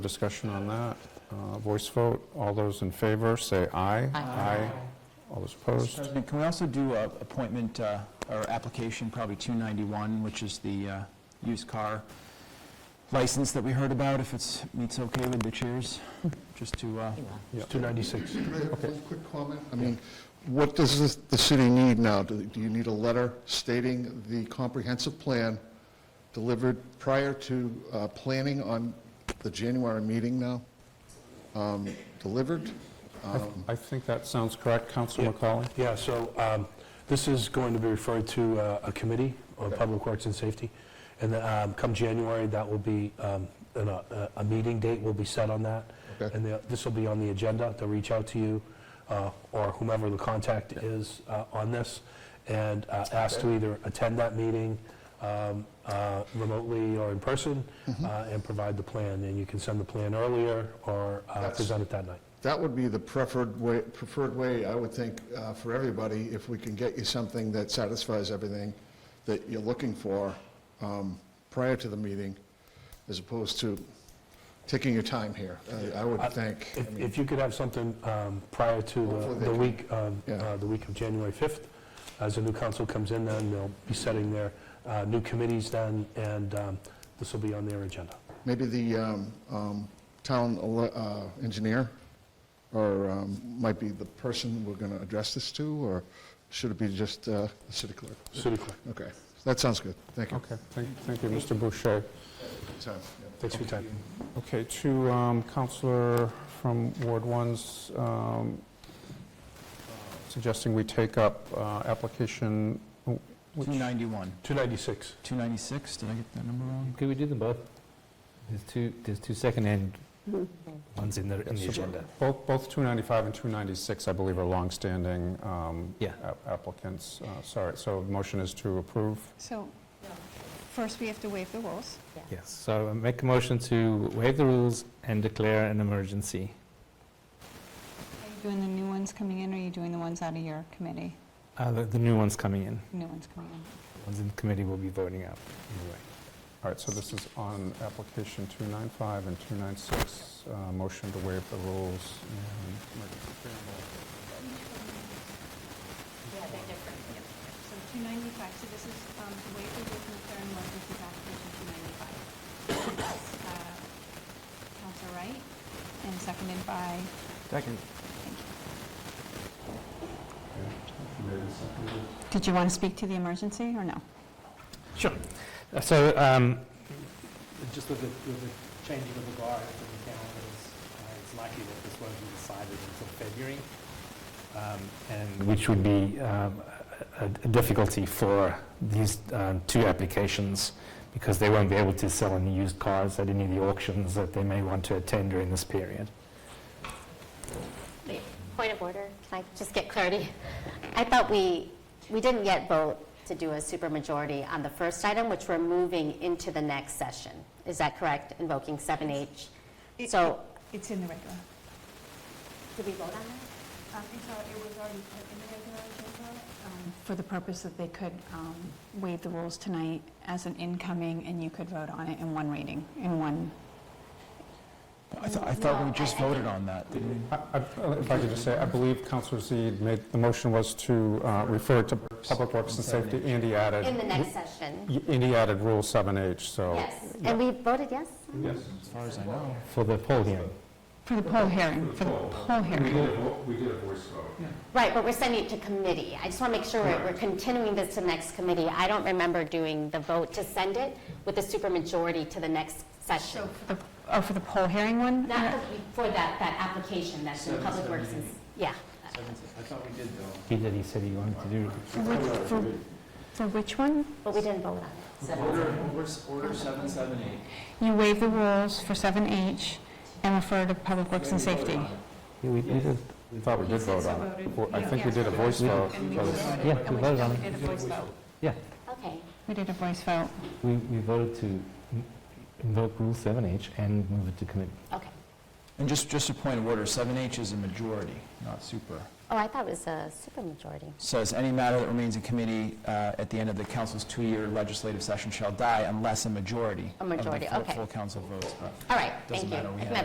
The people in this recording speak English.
Discussion on that. Uh, Voice vote. All those in favor, say aye. Aye. All those Mr. opposed? President, can we also do a appointment, uh, or application, probably 291, which is the uh, used car license that we heard about, if it's, meets okay with the chairs, just to, uh, Yeah. 296. One quick comment. I mean, what does this- the city need now? Do do you need a letter stating the comprehensive plan delivered prior to uh, planning on the January meeting now? Um, Delivered? I think that sounds correct, Council McCauley. Yeah, so um, this is going to be referred to uh, a committee on Public Works and Safety, and um, come January, that will be, um, an, uh, a meeting date will be set on that. Okay. And the- this will be on the agenda, they'll reach out to you, uh, or whomever the contact is uh, on this, and uh, ask to either attend that meeting um, uh, remotely or in person, uh, and provide the plan, and you can send the plan earlier or uh, That's- present it that night. That would be the preferred way, preferred way, I would think, uh, for everybody, if we can get you something that satisfies everything that you're looking for um, prior to the meeting, as opposed to taking your time here, I- I would think. I If mean, if you could have something um, prior to Hopefully the- they the can- week, um, Yeah. uh, the week of January 5th, as the new council comes in then, they'll be setting their uh, new committees then, and um, this will be on their agenda. Maybe the um, um, town ele- uh, engineer, or um, might be the person we're going to address this to, or should it be just uh, the city clerk? City clerk, Okay, that sounds good, thank you. Okay, thank thank you, Mr. Boucher. Time, yeah. thanks for your time. Okay, to um, Counselor from Ward 1's um, suggesting we take up uh, application, oh, which- 291, 296, 296, did I get that number wrong? Could we do them both? There's two, there's two second-hand Hmm. ones in the, in the agenda. both both 295 and 296, I believe, are longstanding um, Yeah. ap- applicants. Uh, Sorry, so motion is to approve. So, first we have to waive the rules. Yes, so I make a motion to waive the rules and declare an emergency. Are you doing the new ones coming in, or are you doing the ones out of your committee? Uh, The the new ones coming in, New ones coming in. The ones in the committee will be voting out. anyway. All right, so this is on application 295 and 296, uh, motion to waive the rules. So 295, so this is um, to waive the rules and declare an emergency is application 295. Uh, Counselor Wright, and seconded by, Second. thank you. Did you want to speak to the emergency, or no? Uh, So, um, Just with the, with the changing of the guard in the calendars, uh, it's likely that this won't be decided until February. Um, And which would be um, a a difficulty for these um, two applications, because they won't be able to sell any used cars at any of the auctions that they may want to attend during this period. Wait, Point of order, can I just get clarity? I thought we, we didn't yet vote to do a supermajority on the first item, which we're moving into the next session. Is that correct, invoking 7H? So, It's in the regular. did we vote on that? Um, and so it was already put in the regular agenda, um, For the purpose that they could um, waive the rules tonight as an incoming, and you could vote on it in one reading, in one. I thought, I thought we just voted on that, didn't we? I- I- If I could just say, I believe Counselor Z made, the motion was to uh, refer to Public Works and Safety, and he added, In the next session? y- and he added Rule 7H, so. Yes, and we voted yes? Yes. As far as I know. For the poll hearing. For the poll hearing, for the poll hearing. We did a voice vote. Right, but we're sending it to committee. I just want to make sure we're we're continuing this to the next committee. I don't remember doing the vote to send it with a supermajority to the next session. The- Oh, for the poll hearing one? Not for that, that application that's in Public Works, and- yeah. I thought we did though. He did, he said he wanted to do. For which- For for which one? But we didn't vote on it. Order, order 778. You waive the rules for 7H and refer to Public Works and Safety. Yeah, we we did. I thought we did vote on it. Well, I think we did a voice vote. because- Yeah, we voted on it. did a voice vote. Okay. We did a voice vote. We, we voted to invoke Rule 7H and move it to committee. Okay. And just, just a point of order, 7H is a majority, not super. Oh, I thought it was a supermajority. Says, "Any matter that remains in committee uh, at the end of the council's two-year legislative session shall die unless a majority A majority, of the full- okay. full council votes." but All right, doesn't thank you. matter, we It have- meant